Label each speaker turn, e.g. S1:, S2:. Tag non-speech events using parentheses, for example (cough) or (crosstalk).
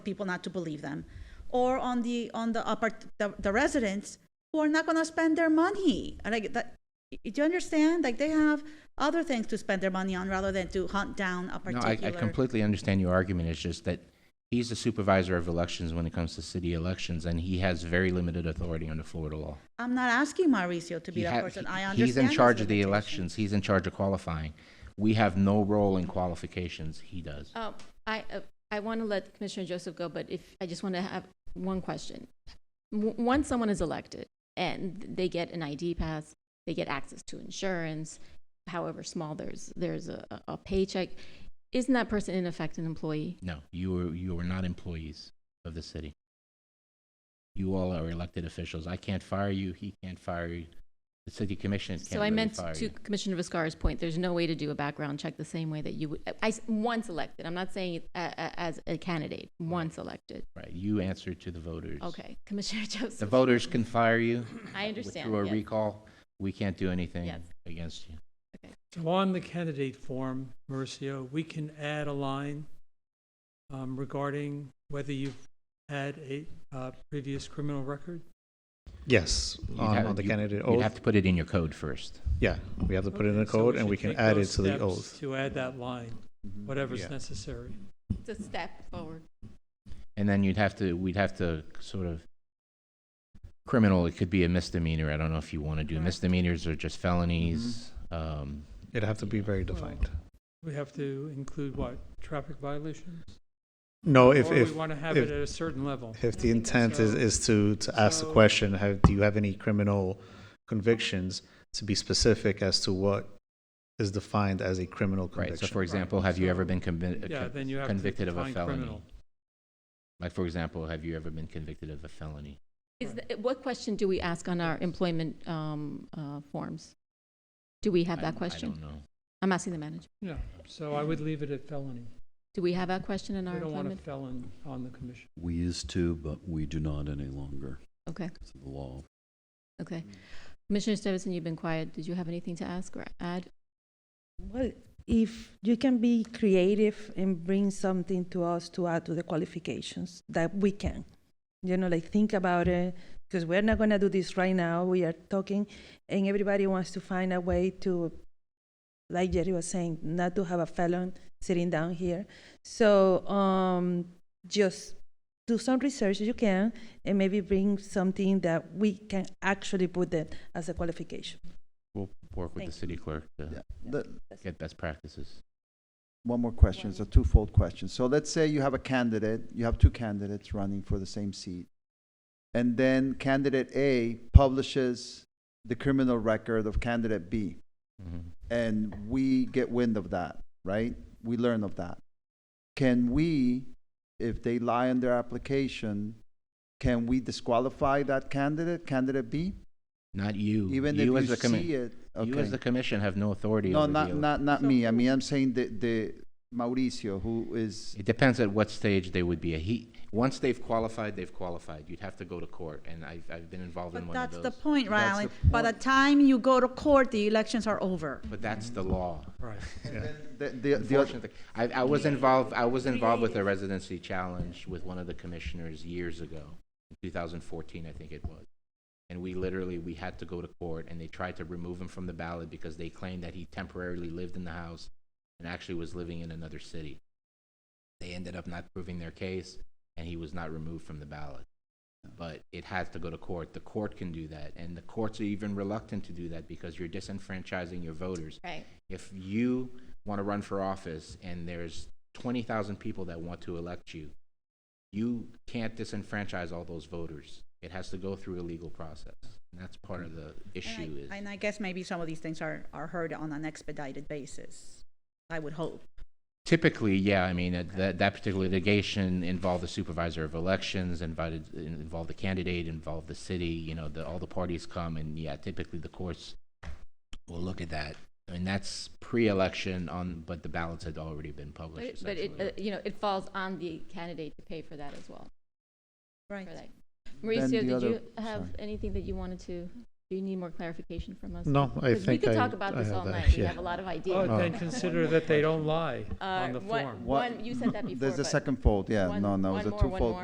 S1: people not to believe them, or on the on the upper the, the residents who are not going to spend their money. And Like that, do you understand? Like they have other things to spend their money on rather than to hunt down a
S2: No,
S1: particular.
S2: I, I completely understand your argument. It's just that he's the supervisor of elections when it comes to city elections, and he has very limited authority under Florida law.
S1: I'm not asking Mauricio to be
S2: He
S1: that
S2: ha-
S1: person.
S2: he-
S1: I understand.
S2: He's in
S1: his
S2: charge of the
S1: limitations.
S2: elections. He's in charge of qualifying. We have no role in qualifications. He does.
S3: Uh, I, uh, I want to let Commissioner Joseph go, but if, I just want to have one question. W- Once someone is elected and they get an ID pass, they get access to insurance, however small, there's, there's a, a- a paycheck, isn't that person in effect an employee?
S2: No, you are, you are not employees of the city. You all are elected officials. I can't fire you. He can't fire you. The city commission can't
S3: So I
S2: really
S3: meant
S2: fire
S3: to
S2: you.
S3: Commissioner Viscar's point, there's no way to do a background check the same way that you would, I, s- once elected, I'm not saying uh, uh, as a candidate, once elected.
S2: Right, you answer to the voters.
S3: Okay, Commissioner (laughs)
S2: The
S3: Joseph,
S2: voters can fire you.
S3: I
S2: with-
S3: understand.
S2: Through a
S3: yes.
S2: recall, we can't do anything
S3: Yes.
S2: against you.
S4: So on the candidate form, Mauricio, we can add a line um, regarding whether you've had a uh, previous criminal record.
S5: Yes,
S2: You'd
S5: on,
S2: have-
S5: on the
S2: you-
S5: candidate
S6: Oh.
S2: You'd
S5: oath.
S2: have to put it in your code first.
S5: Yeah, we have to put it in the
S4: So
S5: code and
S4: should
S5: we can
S4: take
S5: add it
S4: those
S5: to the
S4: steps
S5: oath. Mm-hmm.
S4: To add that line, whatever's
S5: Yeah.
S4: necessary.
S3: It's a step forward.
S2: And then you'd have to, we'd have to sort of, criminal, it could be a misdemeanor. I don't know if you want to do
S3: Correct.
S2: misdemeanors or just felonies.
S6: Mm-hmm.
S2: Um,
S5: It'd have to be very defined.
S4: We have to include what, traffic violations?
S5: No, if,
S4: Or
S5: if,
S4: we want to have
S5: if-
S4: it at a certain level.
S5: if the intent is,
S4: So-
S5: is to, to ask the
S4: so-
S5: question, have, do you have any criminal convictions? To be specific as to what is defined as a criminal
S2: right, so
S5: conviction.
S2: for example, have you ever been convi-
S4: Yeah, then you have to
S2: convicted of a
S4: define
S2: felony?
S4: criminal.
S2: Like, for example, have you ever been convicted of a felony?
S3: Is, the- what question do we ask on our employment um, uh, forms? Do we have
S2: I-
S3: that
S2: I
S3: question?
S2: don't know.
S3: I'm asking the manager.
S4: Yeah, so I would leave it at felony.
S3: Do we have that question in
S4: We
S3: our
S4: don't want a
S3: employment?
S4: felon on the commission.
S7: We used to, but we do not any longer
S3: Okay,
S7: because of the law.
S3: okay.
S2: Mm.
S3: Commissioner Stevenson, you've been quiet. Did you have anything to ask or add?
S8: Well, if you can be creative and bring something to us to add to the qualifications, that we can. You know, like think about it, because we're not gonna do this right now. We are talking, and everybody wants to find a way to, like Jerry was saying, not to have a felon sitting down here. So um, just do some research you can, and maybe bring something that we can actually put that as a qualification.
S2: We'll work with the
S8: Thank
S2: city clerk to
S6: The-
S2: get best practices.
S6: One more question, it's a twofold question. So let's say you have a candidate, you have two candidates running for the same seat. And then candidate A publishes the criminal record of candidate B.
S2: Mhm.
S6: And we get wind of that, right? We learn of that. Can we, if they lie on their application, can we disqualify that candidate, candidate B?
S2: Not you.
S6: Even if
S2: as
S6: you
S2: the commi-
S6: see it?
S2: You
S6: okay.
S2: as the commission have no authority
S6: No,
S2: over the
S6: not,
S2: ele-
S6: not, not me. I mean, I'm saying the, the Mauricio, who is
S2: It depends at what stage they would be. He, once they've qualified, they've qualified. You'd have to go to court, and I've, I've been involved in
S1: But
S2: one of
S1: that's
S2: those.
S1: the point,
S6: That's
S1: Rylan.
S6: the
S1: By the time you go to court, the elections are over.
S2: But that's the law.
S4: Right.
S6: The, the, the other,
S2: Unfortunately, I, I was involved, I was involved with a residency challenge with one of the commissioners years ago, in 2014, I think it was. And we literally, we had to go to court, and they tried to remove him from the ballot because they claimed that he temporarily lived in the house and actually was living in another city. They ended up not proving their case, and he was not removed from the ballot. But it has to go to court. The court can do that, and the courts are even reluctant to do that because you're disenfranchising your voters
S3: Right.
S2: if you want to run for office and there's 20,000 people that want to elect you, you can't disenfranchise all those voters. It has to go through a legal process. And that's part of the issue
S1: And
S2: is.
S1: I, and I guess maybe some of these things are, are heard on an expedited basis. I would hope.
S2: Typically, yeah, I mean, that- that, that particular litigation involved the supervisor of elections, invited, involved the candidate, involved the city, you know, the, all the parties come, and yeah, typically the courts will look at that. And that's pre-election on, but the ballots had already been
S3: But
S2: published
S3: it- but it,
S2: essentially.
S3: uh, you know, it falls on the candidate to pay for that as well.
S1: Right.
S3: for that.
S6: the
S2: Mm.
S3: Mauricio, did
S6: other-
S3: you have
S6: sorry.
S3: anything that you wanted to Do you need more clarification from us?
S5: No, I
S3: 'Cause we
S5: think
S3: could
S5: I-
S3: talk about
S5: I
S3: this
S5: have
S3: all
S5: that,
S3: night. We
S5: yeah.
S3: have a lot of
S4: Oh,
S3: ideas.
S4: then
S3: (laughs)
S4: consider that they don't lie
S3: Uh,
S4: on the
S3: one-
S4: form.
S6: What-
S3: One, you said that before,
S5: (laughs)
S6: There's the
S3: but-
S6: second fold, yeah,
S3: One-
S6: no, no,
S3: one
S6: it's a
S3: more, one
S6: twofold.
S3: more.